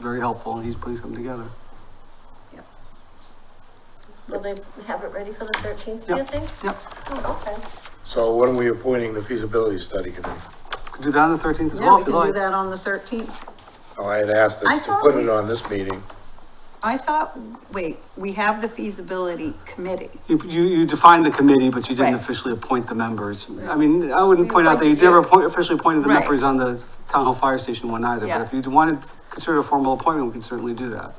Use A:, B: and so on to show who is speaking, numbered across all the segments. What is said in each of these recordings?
A: very helpful, and he's putting something together.
B: Will they have it ready for the thirteenth, do you
A: Yep.
B: think?
A: Yep,
B: Oh, okay.
C: So when are we appointing the feasibility study committee?
A: could do that on the thirteenth as
D: Yeah,
A: well,
D: we
A: if
D: can
A: you'd
D: do
A: like.
D: that on the thirteenth.
C: Oh, I had asked
D: I
C: to to
D: thought
C: put
D: we-
C: it on this meeting.
D: I thought, wait, we have the feasibility committee.
A: You, you, you defined the committee, but you didn't
D: Right.
A: officially appoint the members. I mean, I wouldn't
D: We
A: point out that you
D: appointed
A: never
D: you.
A: appoint- officially appointed the
D: Right.
A: members on the town hall fire station one either,
D: Yeah.
A: but if you wanted, to consider a formal appointment, we can certainly do that.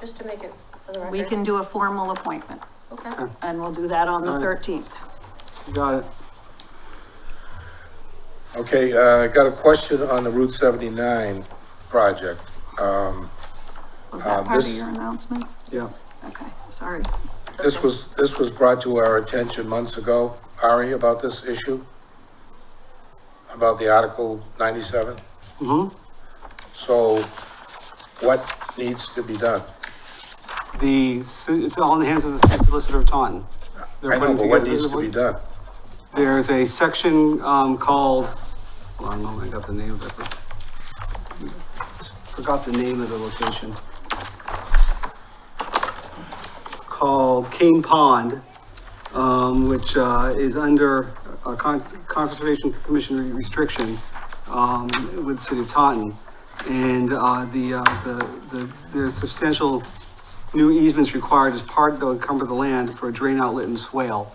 B: Just to make it for the record.
D: We can do a formal appointment
B: Okay.
D: and we'll do that on the
A: Alright.
D: thirteenth.
A: You Got it.
C: Okay, uh, I got a question on the Route seventy-nine project. Um,
D: Was
C: Um,
D: that part of
C: this-
D: your announcements?
A: Yeah.
D: Okay, sorry.
C: this was, this was brought to our attention months ago, Ari, about this issue? About the Article ninety-seven?
A: Mm-hmm.
C: So what needs to be done?
A: The, ci- it's all in the hands of the city solicitor of Taunton. They're
C: I know,
A: putting
C: but what
A: together-
C: needs to be done?
A: There's a section, um, called, hold on a moment, I got the name of it. Forgot the name of the location. Called Cane Pond, um, which, uh, is under a con- conservation commission restriction, um, with the city of Taunton. And, uh, the, uh, the, the, there's substantial new easements required as part, that would cover the land for a drain outlet and swale.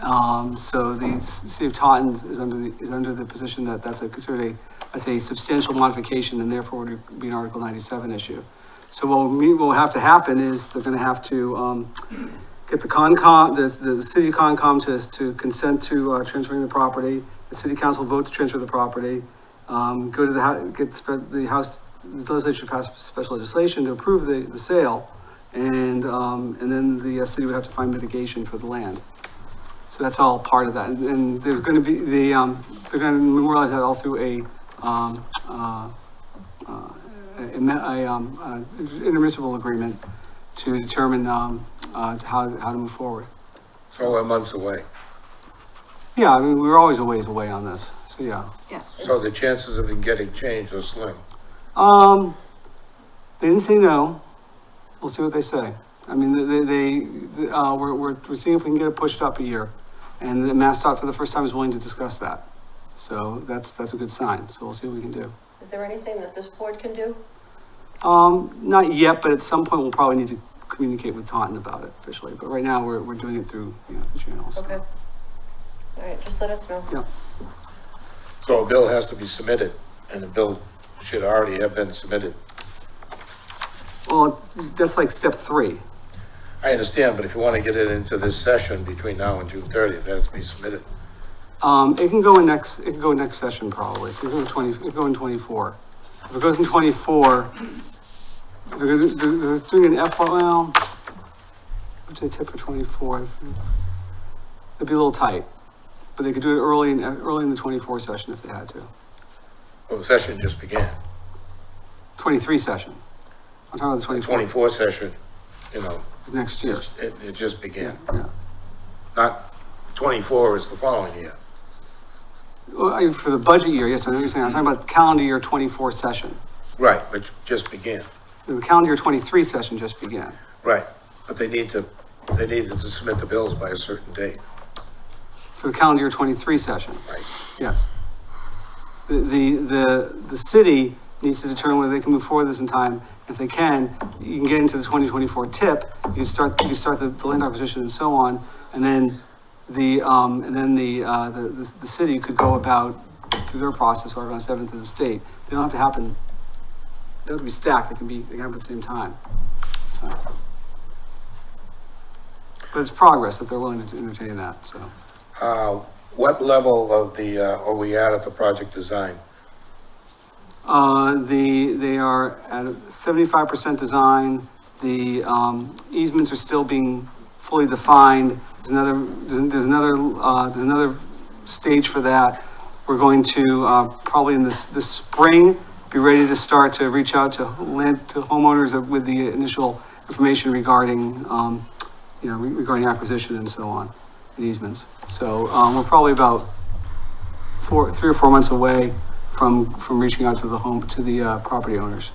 A: Um, so the s- city of Taunton is under the, is under the position that that's a considered a, that's a substantial modification and therefore would be an Article ninety-seven issue. So what we, what would have to happen is they're gonna have to, um, get the Concom, the, the city Concom to, to consent to, uh, transferring the property. The city council vote to transfer the property, um, go to the, hou- get, spe- the house, the legislature passed special legislation to approve the, the sale. And, um, and then the uh, city would have to find mitigation for the land. So that's all part of that. And there's gonna be, the, um, they're gonna memorialize that all through a, um, uh, uh, a, a, um, uh, intermunicipal agreement to determine, um, uh, how, how to move forward.
C: So we're months away.
A: Yeah, I mean, we were always a ways away on this, so yeah.
D: Yeah.
C: So the chances of it getting changed are slim.
A: Um, they didn't say no. We'll see what they say. I mean, they, they, they, uh, we're, we're, we're seeing if we can get it pushed up a year. And the MassDOT for the first time is willing to discuss that. So that's, that's a good sign. So we'll see what we can do.
B: Is there anything that this board can do?
A: Um, not yet, but at some point we'll probably need to communicate with Taunton about it officially. But right now, we're, we're doing it through, you know, the channels.
B: Okay. All right, just let us know.
A: Yeah.
C: So a bill has to be submitted, and the bill should already have been submitted.
A: Well, that's like step three.
C: I understand, but if you want to get it into this session between now and June thirtieth, it has to be submitted.
A: Um, it can go in next, it can go in next session probably, it can go in twenty, it can go in twenty-four. If it goes in twenty-four, they're, gonna- they're, they're doing an F, well, what's the tip for twenty-four? It'd be a little tight, but they could do it early in, early in the twenty-four session if they had to.
C: Well, the session just began.
A: Twenty-three session. I'm talking about the
C: The
A: twenty-four,
C: twenty-four session, you know,
A: is next year.
C: it, it- it just
A: Yeah,
C: began.
A: yeah.
C: Not, twenty-four is the following year.
A: Well, I- for the budget year, yes, I know what you're saying, I'm talking about calendar year twenty-four session.
C: Right, which just began.
A: The calendar year twenty-three session just began.
C: Right, but they need to, they need to submit the bills by a certain date.
A: for the calendar year twenty-three session.
C: Right.
A: Yes. The, the, the, the city needs to determine whether they can move forward this in time. If they can, you can get into the twenty twenty-four tip, you can start, you can start the, the land acquisition and so on. And then the, um, and then the, uh, the, the, the city could go about through their process, or around seventh of the state. They don't have to happen, they don't have to be stacked, they can be, they can happen at the same time. So. But it's progress that they're willing to entertain that, so.
C: Uh, what level of the, uh, are we at at the project design?
A: Uh, the, they are at seventy-five percent design. The, um, easements are still being fully defined. There's another, there's there's another, uh, there's another stage for that. We're going to, uh, probably in this, this spring, be ready to start to reach out to land, to homeowners with the initial information regarding, um, you know, re- regarding acquisition and so on, and easements. So, um, we're probably about four, three or four months away from, from reaching out to the home, to the uh, property owners.